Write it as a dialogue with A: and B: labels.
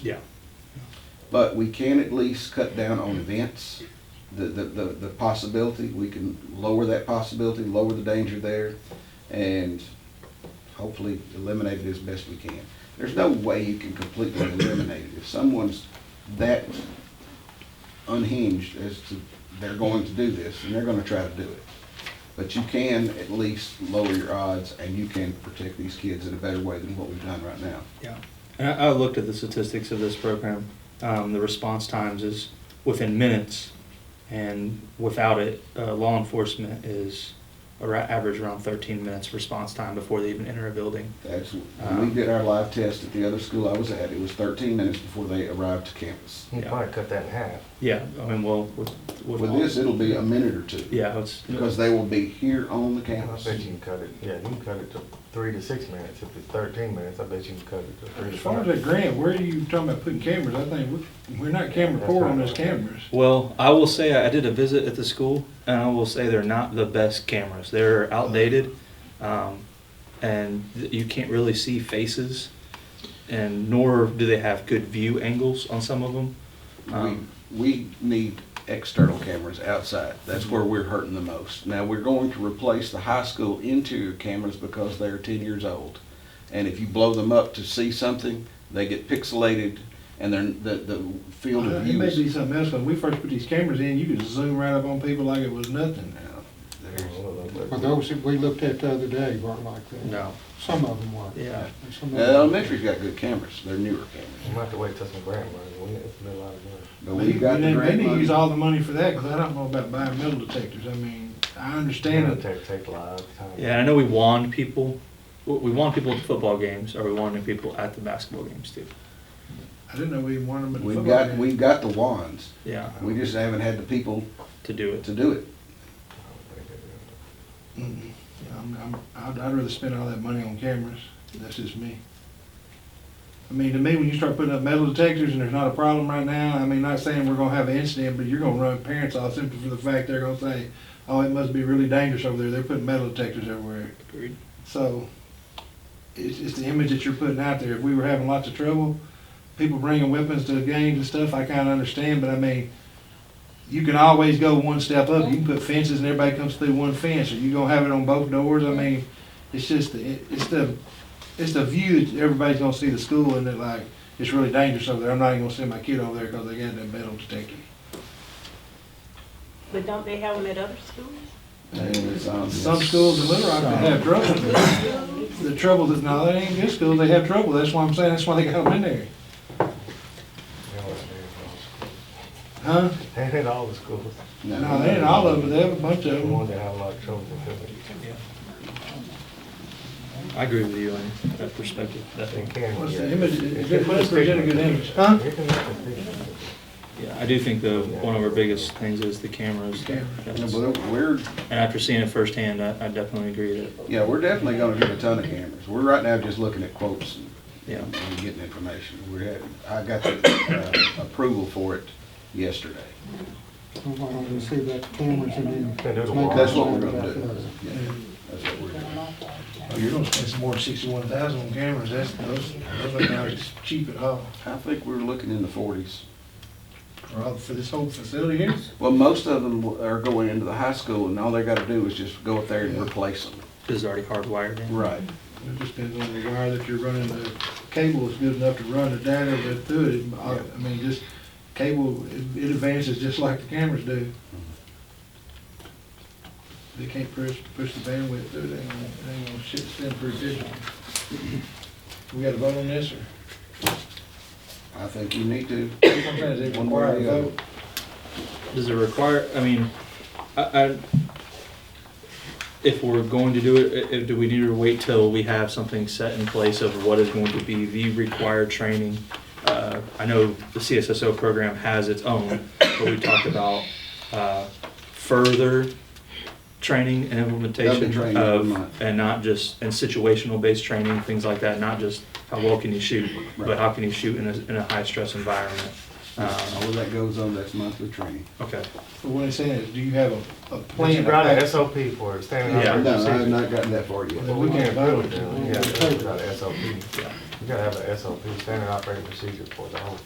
A: Yeah.
B: But we can at least cut down on events, the, the, the, the possibility, we can lower that possibility, lower the danger there, and hopefully eliminate it as best we can. There's no way you can completely eliminate it. If someone's that unhinged as to, they're going to do this, and they're gonna try to do it. But you can at least lower your odds, and you can protect these kids in a better way than what we've done right now.
A: Yeah.
C: And I, I looked at the statistics of this program. Um, the response times is within minutes, and without it, uh, law enforcement is ar- average around 13 minutes response time before they even enter a building.
B: That's,
D: Uh,
B: when we did our live test at the other school I was at, it was thirteen minutes before they arrived to campus.
E: You
C: Yeah.
E: probably cut that in half.
C: Yeah, I mean, well, with, with,
B: With this, it'll be a minute or two.
C: yeah, it's
B: Because they will be here on the
E: I
B: campus.
E: bet you can cut it, yeah, you can cut it to three to six minutes. If it's thirteen minutes, I bet you can cut it to three to
D: As far as
E: five.
D: that grant, where are you talking about putting cameras? I think we're, we're not camera poor on those cameras.
C: Well, I will say I did a visit at the school, and I will say they're not the best cameras. They're outdated, um, and th- you can't really see faces, and nor do they have good view angles on some of them.
D: Uh-huh.
B: We,
C: Um,
B: we need external cameras outside. That's where we're hurting the most. Now, we're going to replace the high school interior cameras because they're ten years old. And if you blow them up to see something, they get pixelated and they're, the, the field of
D: Uh, It may
B: view is.
D: be something else, when we first put these cameras in, you could zoom right up on people like it was nothing.
B: Now,
E: I
B: there's-
E: don't know,
F: Well,
E: but-
F: those that we looked at the other day weren't like that.
C: No.
F: Some of them were.
C: Yeah.
F: And some of
B: Now,
F: them-
B: Elementary's got good cameras. They're newer cameras.
E: We might have to wait till some grant money. We- It's been a lot of money.
B: But we've got
D: And
B: the
D: they-
B: grant
D: They need to use
B: money.
D: all the money for that, because I don't know about buying metal detectors. I mean, I understand
E: It'll
D: it.
E: take, take a lot of time.
C: Yeah, I know we wand people. We- We wand people at football games, or we wand people at the basketball games too.
D: I didn't know we even wanted them at the
B: We've
D: football
B: got,
D: game.
B: we've got the wands.
C: Yeah,
B: We just haven't had the people
C: to do it.
B: to do it.
E: I don't think it-
D: Mm-mm. I'm, I'm, I'd, I'd rather spend all that money on cameras. That's just me. I mean, to me, when you start putting up metal detectors and there's not a problem right now, I mean, not saying we're gonna have an incident, but you're gonna run parents off simply for the fact they're gonna say, oh, it must be really dangerous over there. They're putting metal detectors everywhere.
C: Agreed.
D: So it's, it's the image that you're putting out there. If we were having lots of trouble, people bringing weapons to games and stuff, I kind of understand, but I mean, you can always go one step up. You can put fences and everybody comes through one fence, or you gonna have it on both doors. I mean, it's just, the- it- it's the, it's the view that everybody's gonna see the school and that like, it's really dangerous over there. I'm not even gonna send my kid over there because they got that metal detector.
G: But don't they have them at other schools?
B: And it's um, on-
D: Some schools in Little Rock, they have trouble. The trouble is, no, that ain't good schools. They have trouble. That's why I'm saying, that's why they got them in there.
E: you know, it's been all the schools.
D: Huh?
E: They hit all the schools.
D: No, they ain't all of them, they have a bunch
E: The
D: of them.
E: ones that have a lot of trouble because of-
C: I agree with you on that perspective. That
E: they
C: thing.
E: can.
D: What's
E: yeah.
D: the image, is
E: It's
D: it,
E: just a
D: let's present a
E: stigma.
D: good image, huh?
E: It can make a difference.
C: Yeah, I do think the one of our biggest things is the cameras.
D: Camera.
B: Yeah,
C: That's-
B: but We're,
C: And after seeing it firsthand, I, I definitely agree that
B: yeah, we're definitely gonna get a ton of cameras. We're right now just looking at quotes and-
C: yeah.
B: and getting information. We're, at- I got the uh, approval for it yesterday.
F: We wanted to see that cameras and then.
E: Can do the
F: make
E: wall.
B: That's what we're
F: a
B: gonna
F: decision
B: do.
F: about those.
B: Yeah, that's what we're doing.
D: Oh, you're gonna spend some more than sixty-one thousand on cameras, that's, those, those are not as cheap at all.
B: I think we're looking in the forties.
D: Or all- for this whole facility here,
B: Well, most of them are going into the high school and all they gotta do is just go up there and replace them.
C: This is already hardwired in.
B: Right.
D: it just depends on the wire that you're running, the cable is good enough to run the data that through it. It- I I mean, just, cable, it it advances just like the cameras do. They can't push, push the bandwidth through, they ain't gonna, they ain't gonna shit send pretty digital. We gotta vote on this, or?
B: I think you need to.
D: Sometimes they
B: One way or
D: require a
B: the other.
D: vote.
C: Does it require, I mean, I, I, if we're going to do it, i- i- do we need to wait till we have something set in place of what is going to be the required training? Uh, I know the CSSO program has its own, but we talked about, uh, further training and implementation
B: training every month.
C: of, and not just, and situational-based training, things like that, not just how well can you shoot,
B: Right.
C: but how can you shoot in a, in a high-stress environment?
B: All
C: Um,
B: of that goes on, that's monthly training.
C: okay.
D: But what I'm saying is, do you have a, a
E: But
D: plan?
E: you brought an SOP for it, standing
C: Yeah.
E: out.
B: No, I have not gotten that far yet.
E: Well, we can't vote, yeah, we got an SOP. You gotta have an SOP, standard operating procedure for the whole